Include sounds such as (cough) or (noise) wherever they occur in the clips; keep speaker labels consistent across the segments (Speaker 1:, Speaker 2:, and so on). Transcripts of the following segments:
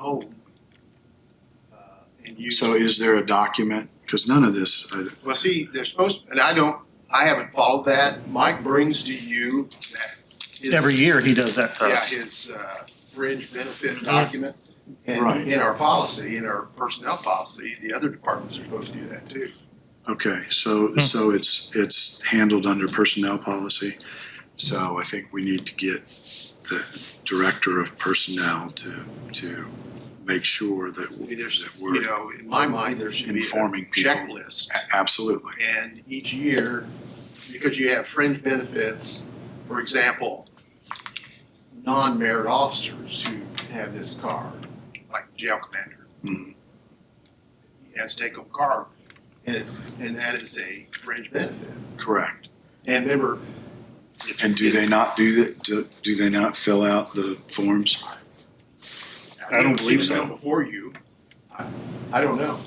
Speaker 1: home. uh, And use.
Speaker 2: Oh. So is there a document? Because none of this, I-
Speaker 1: Well, see, they're supposed, and I don't, I haven't followed that. Mike brings to you that. his-
Speaker 3: Every year he does that to
Speaker 1: Yeah,
Speaker 3: us.
Speaker 1: his uh, fringe benefit document.
Speaker 2: Mm-hmm. Right.
Speaker 1: And in our policy, in our personnel policy, the other departments are supposed to do that too.
Speaker 2: okay, so, so it's, it's handled under personnel policy. So I think we need to get the director of personnel to, to make sure that,
Speaker 1: I mean,
Speaker 2: w-
Speaker 1: there's,
Speaker 2: that
Speaker 1: you
Speaker 2: we're,
Speaker 1: know, in my mind, there should be a
Speaker 2: Informing people.
Speaker 1: checklist.
Speaker 2: a- absolutely.
Speaker 1: And each year, because you have fringe benefits, for example, non-merit officers who have this card, like jail commander,
Speaker 2: Mhm.
Speaker 1: he has to take home card, and it's, and that is a fringe benefit.
Speaker 2: Correct.
Speaker 1: And remember. it's-
Speaker 2: And do they
Speaker 1: it's-
Speaker 2: not do that, do, do they not fill out the forms?
Speaker 1: I've
Speaker 3: I don't
Speaker 1: never seen
Speaker 3: believe
Speaker 1: it
Speaker 3: so.
Speaker 1: come Before you, I, I don't know.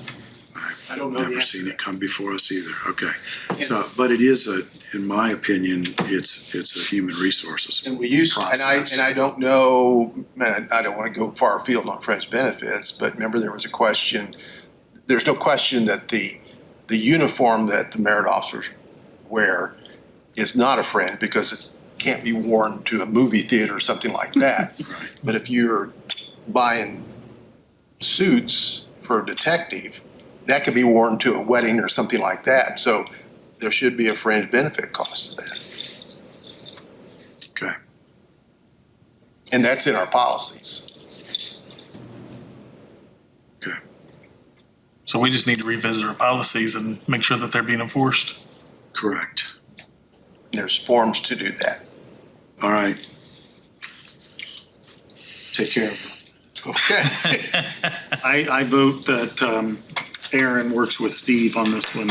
Speaker 1: I
Speaker 2: I've
Speaker 1: don't know the
Speaker 2: never
Speaker 1: answer
Speaker 2: seen
Speaker 1: to
Speaker 2: it come before us either, okay.
Speaker 1: And-
Speaker 2: So, but it is a, in my opinion, it's, it's a human resources.
Speaker 1: And we used, to- and I,
Speaker 2: Process.
Speaker 1: and I don't know, man, I don't want to go far afield on fringe benefits, but remember there was a question, there's no question that the, the uniform that the merit officers wear is not a fringe because it's, can't be worn to a movie theater or something like that.
Speaker 2: Right.
Speaker 1: But if you're buying suits for a detective, that could be worn to a wedding or something like that. So there should be a fringe benefit cost to that.
Speaker 2: Okay.
Speaker 1: And that's in our policies.
Speaker 3: So we just need to revisit our policies and make sure that they're being enforced.
Speaker 2: Correct.
Speaker 1: There's forms to do that.
Speaker 2: All right. Take care of
Speaker 1: Okay. (laughs)
Speaker 4: I, I vote that um, Aaron works with Steve on this one.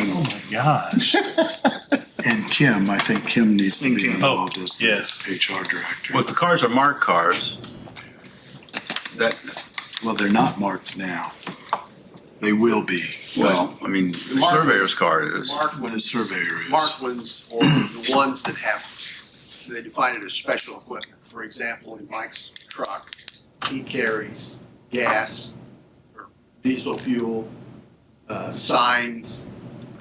Speaker 3: Gosh.
Speaker 2: it. And Kim, I think Kim needs to
Speaker 4: And
Speaker 2: be
Speaker 4: Kim.
Speaker 2: involved as the
Speaker 3: yes.
Speaker 2: HR director.
Speaker 5: Well, if the cars are marked cars, that,
Speaker 2: Well, they're not marked now. They will be.
Speaker 5: well, I mean, the
Speaker 1: Marked-
Speaker 5: surveyor's car is.
Speaker 1: Marked
Speaker 2: The
Speaker 1: ones,
Speaker 2: surveyor is.
Speaker 1: marked ones or the ones that have, they define it as special equipment. For example, in Mike's truck, he carries gas or diesel fuel, uh, signs,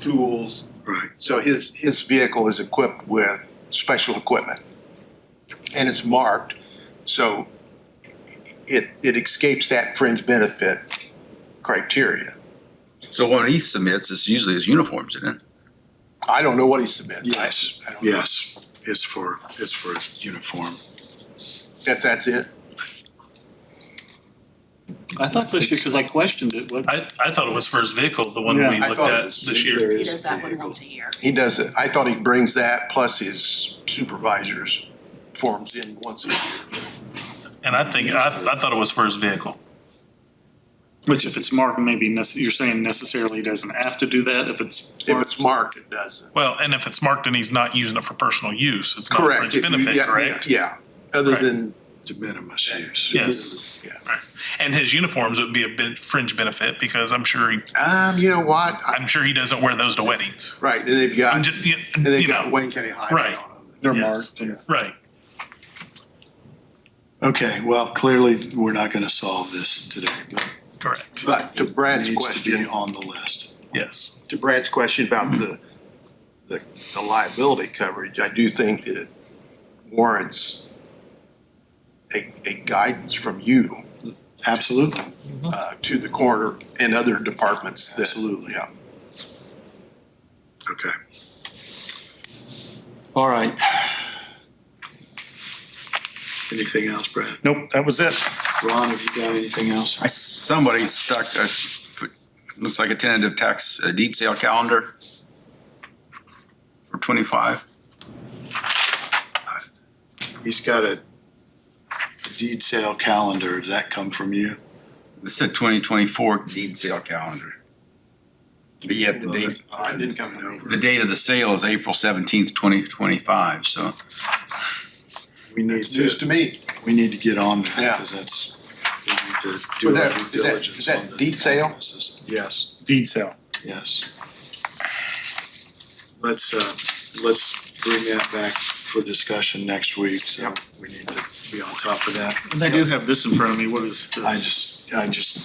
Speaker 1: tools.
Speaker 2: Right.
Speaker 1: So his, his vehicle is equipped with special equipment. And it's marked, so it, it escapes that fringe benefit criteria.
Speaker 5: So when he submits, it's usually his uniforms, isn't it?
Speaker 1: I don't know what he submits. I-
Speaker 2: Yes.
Speaker 1: I don't know.
Speaker 2: Yes. It's for, it's for uniform.
Speaker 1: That, that's it?
Speaker 4: I thought this year, because I questioned it, but
Speaker 3: I, I thought it was for his vehicle, the one that we
Speaker 1: Yeah, I
Speaker 3: looked
Speaker 1: thought it
Speaker 3: at
Speaker 1: was-
Speaker 3: this year.
Speaker 2: There
Speaker 6: He
Speaker 2: is
Speaker 6: does that one
Speaker 2: vehicle.
Speaker 6: once a year.
Speaker 1: He does it. I thought he brings that plus his supervisor's forms in once a year.
Speaker 3: And I think, I, I thought it was for his vehicle.
Speaker 4: which if it's marked, maybe nece- you're saying necessarily he doesn't have to do that if it's
Speaker 1: If it's marked, it doesn't.
Speaker 3: Well, and if it's marked and he's not using it for personal use, it's not a
Speaker 1: Correct.
Speaker 3: fringe
Speaker 1: If you-
Speaker 3: benefit,
Speaker 1: yeah,
Speaker 3: correct?
Speaker 1: Yeah, other
Speaker 3: Right.
Speaker 1: than.
Speaker 2: De minimis use.
Speaker 3: Yes.
Speaker 1: Yeah.
Speaker 3: Right. And his uniforms would be a bit fringe benefit because I'm sure, he-
Speaker 1: Um, you know what? I-
Speaker 3: I'm sure he doesn't wear those to weddings.
Speaker 1: Right, and they've
Speaker 3: I'm
Speaker 1: got,
Speaker 3: just, you-
Speaker 1: and
Speaker 3: you
Speaker 1: they've got
Speaker 3: know,
Speaker 1: Wayne County Highway
Speaker 3: Right.
Speaker 1: on them.
Speaker 4: they're
Speaker 3: Yes.
Speaker 4: marked. and-
Speaker 3: right.
Speaker 2: Okay, well, clearly, we're not going to solve this today, but
Speaker 3: Correct.
Speaker 1: But to Brad's
Speaker 2: it needs to
Speaker 1: question,
Speaker 2: be on the list.
Speaker 3: Yes.
Speaker 1: to Brad's question about the, the the liability coverage, I do think that it warrants a, a guidance from you
Speaker 2: Absolutely.
Speaker 1: uh, to the coroner and other departments that.
Speaker 2: Absolutely.
Speaker 1: Yeah.
Speaker 2: Okay. All right. Anything else, Brad?
Speaker 3: Nope, that was it.
Speaker 2: Ron, have you got anything else?
Speaker 5: I, somebody stuck a, looks like a tentative tax a deed sale calendar for twenty-five.
Speaker 2: He's got a deed sale calendar. Did that come from you?
Speaker 5: It said twenty twenty-four deed sale calendar. But yet the date,
Speaker 1: I didn't come in over.
Speaker 5: the date of the sale is April seventeenth, twenty twenty-five, so.
Speaker 2: We need
Speaker 1: News to
Speaker 2: to,
Speaker 1: me.
Speaker 2: we need to get on
Speaker 1: Yeah.
Speaker 2: that because that's, we need to
Speaker 1: Was
Speaker 2: do our
Speaker 1: that- is
Speaker 2: due
Speaker 1: that- is
Speaker 2: diligence
Speaker 1: that
Speaker 2: on the.
Speaker 1: deed sale?
Speaker 2: calendars. Yes,
Speaker 4: Deed sale.
Speaker 2: yes. Let's, uh, let's bring that back for discussion next week, so
Speaker 1: Yep.
Speaker 2: we need to be on top of that.
Speaker 4: And I do have this in front of me. What is this?
Speaker 2: I just, I just